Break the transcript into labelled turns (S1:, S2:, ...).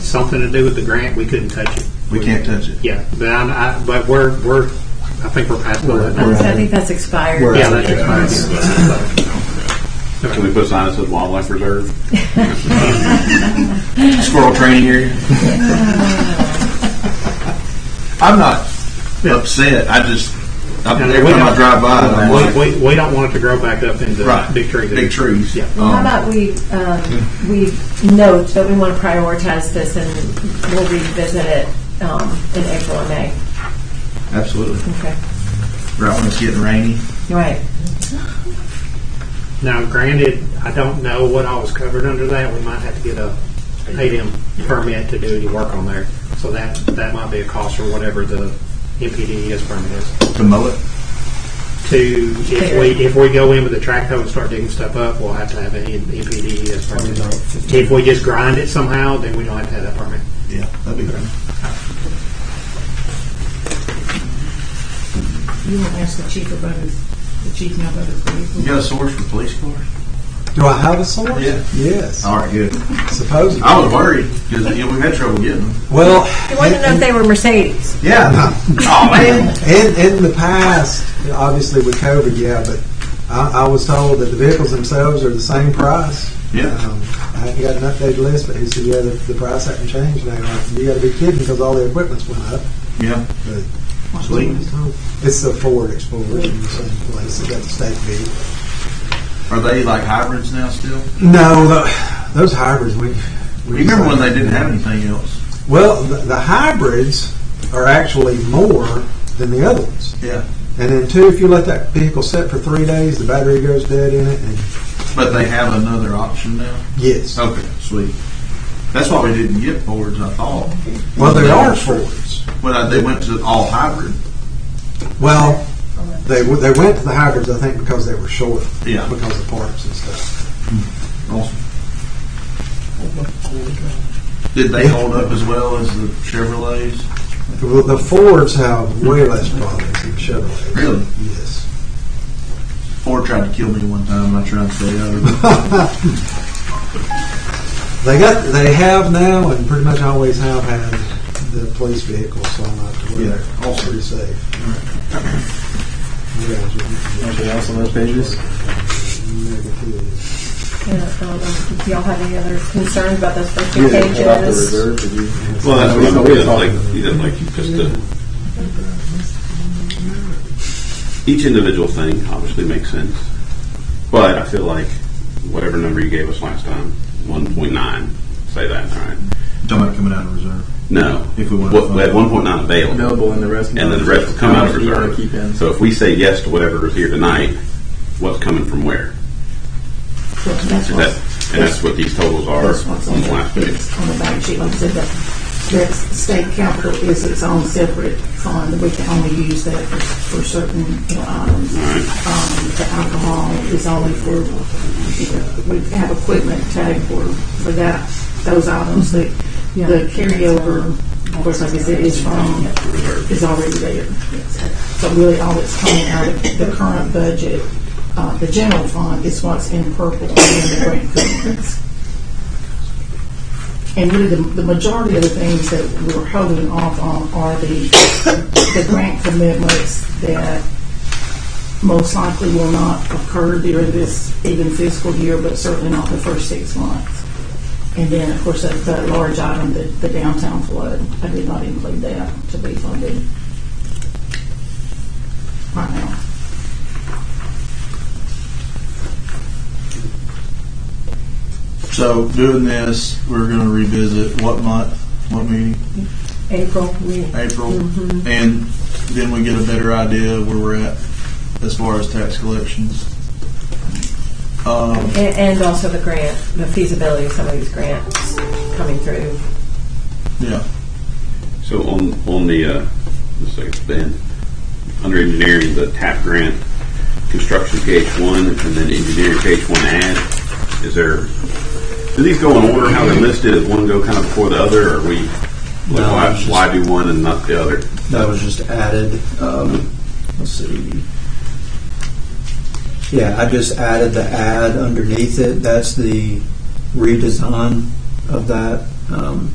S1: something to do with the grant, we couldn't touch it.
S2: We can't touch it.
S1: Yeah, but I'm, I, but we're, we're, I think we're past all that.
S2: We're
S3: I
S2: out of-
S3: think that's expired.
S2: we're
S1: Yeah,
S2: out of-
S1: that's expired.
S4: Can we put a sign that says wildlife reserve?
S2: Squirrel training area. I'm not
S1: Yeah.
S2: upset. I just, I-
S1: And
S2: every
S1: we
S2: time I
S1: don't-
S2: drive by, I'm like,
S1: We, we, we don't want it to grow back up into
S2: right.
S1: big trees.
S2: Big trees.
S1: Yeah.
S3: Well, How
S2: Um,
S3: about we, um, we note that we want to prioritize this and we'll revisit it um, in April and May.
S2: Absolutely.
S3: Okay.
S2: Right when it's getting rainy.
S3: Right.
S1: Now, granted, I don't know what all was covered under that. We might have to get a ADM permit to do any work on there. So that, that might be a cost or whatever the MPDES permit is.
S2: To mow it.
S1: to, if
S3: Clear.
S1: we, if we go in with a track hoe and start digging stuff up, we'll have to have an MPD as permit. If we just grind it somehow, then we don't have to have that permit.
S2: Yeah, that'd be great.
S5: You won't ask the chief about it, the chief now about it for you.
S2: You got a source for police cars?
S6: Do I have a source?
S2: Yeah.
S6: Yes.
S2: All right, good.
S6: Supposedly.
S2: I was worried because you know, we've had trouble getting them.
S6: Well,
S3: You want to know if they were Mercedes?
S2: Yeah. oh man.
S6: in, in the past, obviously with COVID, yeah, but I, I was told that the vehicles themselves are the same price.
S2: Yeah.
S6: Um, I haven't got an updated list, but he said, yeah, the, the price hasn't changed. And I'm like, you got to be kidding because all the equipment's went up.
S2: Yeah.
S6: But
S2: Sweet.
S6: It's the Ford Explorer in the same place. It got the state beat.
S2: Are they like hybrids now still?
S6: No, tho- those hybrids, we.
S2: You
S6: we
S2: remember when they didn't have anything else?
S6: Well, the, the hybrids are actually more than the other ones.
S2: Yeah.
S6: And then two, if you let that vehicle sit for three days, the battery goes dead in it, and
S2: But they have another option now.
S6: yes.
S2: Okay, sweet. That's why we didn't get Fords. I thought.
S6: Well, they are Fords.
S2: Well, they went to all hybrid.
S6: Well, they w- they went to the hybrids, I think, because they were short.
S2: Yeah.
S6: Because of parts and stuff.
S2: Awesome. Did they hold up as well as the Chevrolets?
S6: Well, the Fords have way less problems than Chevrolets.
S2: Really?
S6: Yes.
S2: Ford tried to kill me one time. I tried to stay out of it.
S6: They got they have now, and pretty much always have had the police vehicles, so I'm not to worry.
S2: Yeah.
S6: All pretty safe. Yeah, it's really-
S7: Anything else on those pages?
S6: Negative.
S3: Yeah, um, if y'all have any other concerns about those first two
S7: You didn't pull out the
S3: pages?
S7: reserve, did you?
S4: Well, that's what I'm saying. Like, you didn't like you just uh Each individual thing obviously makes sense, but I feel like whatever number you gave us last time, one point nine, say that, all right?
S2: Talking about coming out of reserve.
S4: No,
S2: If we want to
S4: What- we had one point nine available.
S7: Available and the rest.
S4: and then the rest will come out of
S7: How much do you wanna
S4: reserve.
S7: Keep in.
S4: So if we say yes to whatever is here tonight, what's coming from where?
S5: That's
S4: Is
S5: what's,
S4: that- And that's what these totals are
S5: that's what's
S4: on
S5: on
S4: the last page.
S5: the, on the back sheet, like I said, that, that state capital is its own separate fund, we can only use that for, for certain, you know, items. Um, the alcohol is only for, you know, we have equipment tag for, for that, those items, the, the carryover, of course, like I said, is from, is already there. So really, all that's coming out of the current budget, uh, the general fund is what's in purple and the grant commitments. And really, the, the majority of the things that we're holding off on are the, the grant commitments that most likely will not occur during this even fiscal year, but certainly not the first six months. And then, of course, that, that large item, the, the downtown flood, I did not include that to be funded right now.
S2: So doing this, we're going to revisit what month, what meeting?
S3: April, we-
S2: April, and then we get a better idea of where we're at as far as tax collections. Um,
S3: and and also the grant, the feasibility of some of these grants coming through.
S2: yeah,
S4: So on, on the, uh, let's see, Ben, under engineering, the TAP grant, construction page one, and then engineering page one add, is there, do these go in order how they're listed? Does one go kind of before the other, or are we, like,
S7: No,
S4: why,
S7: it's just-
S4: why do one and not the other?
S7: That was just added, um, let's see. Yeah, I just added the ad underneath it, that's the redesign of that, um,